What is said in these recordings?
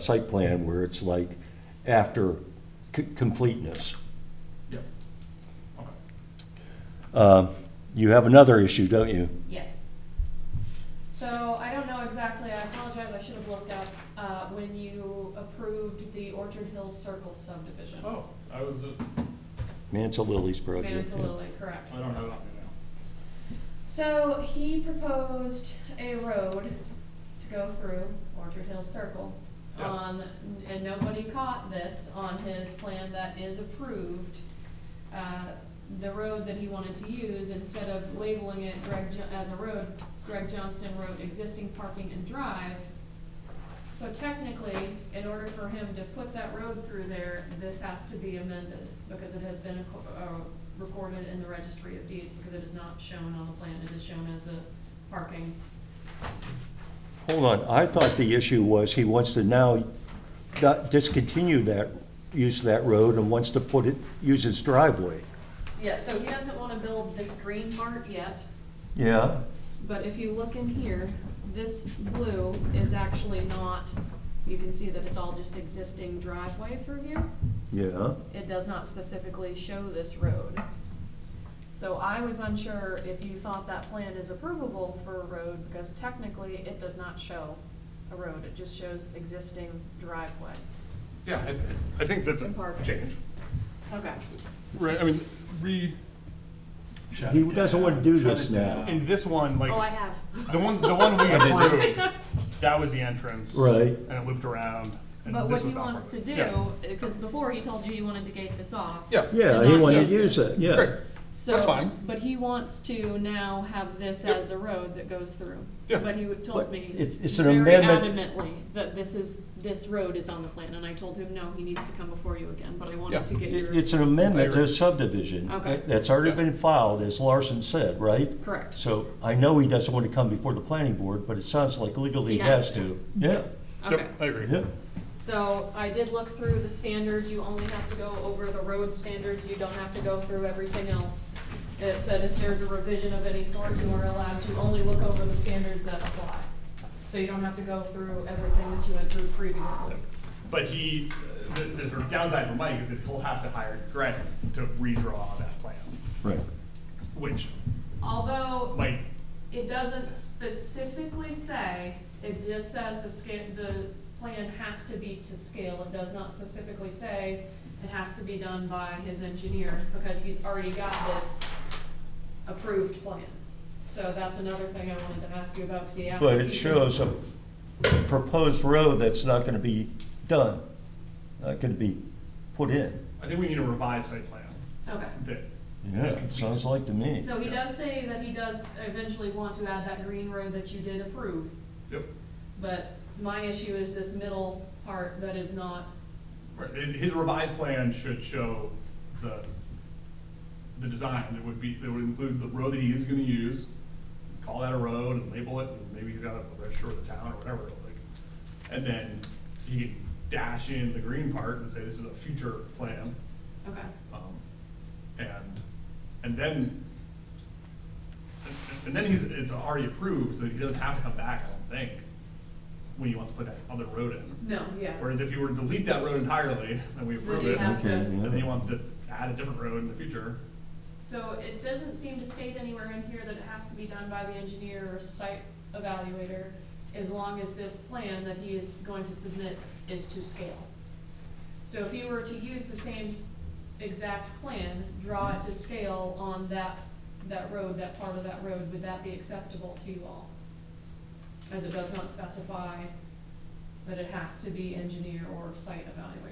site plan where it's like after c- completeness. Yep. Okay. Uh, You have another issue, don't you? Yes. So I don't know exactly, I apologize, I should have looked up, uh, when you approved the Orchard Hills Circle subdivision. Oh, I was, uh, Mansa Lily's project. Mansalili, correct. I don't have it on me So he proposed a road to go through Orchard Hills Circle Yeah. on, and nobody caught this on his plan that is approved. Uh, The road that he wanted to use, instead of labeling it Greg, Jo- as a road, Greg Johnston Road existing parking and drive. So technically, in order for him to put that road through there, this has to be amended because it has been acco- uh, recorded in the registry of deeds because it is not shown on the plan, it is shown as a parking. Hold on, I thought the issue was he wants to now not discontinue that, use of that road and wants to put it, use his driveway. Yeah, so he doesn't wanna build this green part yet, Yeah? but if you look in here, this blue is actually not, you can see that it's all just existing driveway through here. Yeah. it does not specifically show this road. So I was unsure if you thought that plan is approvable for a road, because technically it does not show a road, it just shows existing driveway. now. Yeah, I, I think that's And a parking. change. Okay. Right, I mean, re, He doesn't want to do this now. in this one, like, Oh, I have. the one, the one we approved, that was the entrance. Right. And it looped around. and But this what he was not wants to part of it. do, because before he told you you wanted to gate this off. Yeah. Yeah, he wanted to use it, Yeah, great, yeah. So, That's fine. But he wants to now have this Yep. as a road that goes through. Yeah. But he would- told But me it's- it's an very amendment. adamantly that this is, this road is on the plan, and I told him, no, he needs to come before you again, but I Yeah. wanted to It- get your, It's an amendment to Later. a subdivision. Okay. That's already Yeah. been filed, as Larson said, right? correct, So I know he doesn't want to come before the planning board, but it sounds like legally he He has has to. Yeah, okay. Yep, I agree. yeah. So I did look through the standards, you only have to go over the road standards, you don't have to go through everything else. It said if there's a revision of any sort, you are allowed to only look over the standards that apply. So you don't have to go through everything that you went through previously. But he, the, the downside for Mike is that he'll have to hire Greg to redraw that plan, Right. which Although might it doesn't specifically say, it just says the scale, the plan has to be to scale. It does not specifically say it has to be done by his engineer because he's already got this approved plan. So that's another thing I wanted to ask you about because he asked. But if it you could- shows a proposed road that's not going to be done, not going to be put in. I think we need a revised site plan Okay. that. Yeah, it sounds like to me. So he does say that he does eventually want to add that green road that you did approve. Yep. But my issue is this middle part that is not, Right, and his revised plan should show the, the design, it would be, it would include the road that he is gonna use, call that a road and label it, and maybe he's got to register with the town or whatever, like, and then he can dash in the green part and say, this is a future plan, okay. um, and, and then, and- and then he's, it's already approved, so he doesn't have to come back, I don't think, when he wants to put that other road in. No, yeah. Whereas if you were to delete that road entirely, and we approve you it, have and to- Okay, then he yeah. wants to add a different road in the future, So it doesn't seem to state anywhere in here that it has to be done by the engineer or site evaluator, as long as this plan that he is going to submit is to scale. So if you were to use the same s- exact plan, draw it to scale on that, that road, that part of that road, would that be acceptable to you all? As it does not specify that it has to be engineer or site evaluator.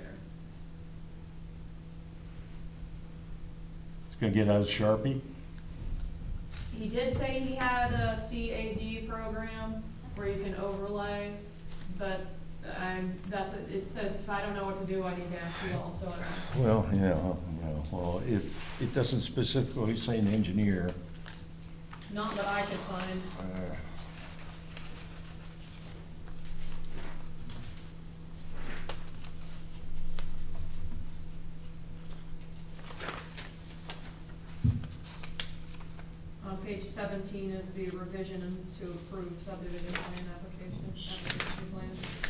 It's going to get out of Sharpie. He did say he had a CAD program where you can overlay, but I'm, that's, it says if I don't know what to do, I need to ask you all, so I don't. Well, yeah, yeah, well, if, it doesn't specifically say an engineer. Not that I could find. uh, On page seventeen is the revision and to approve subdivision plan application, application plan.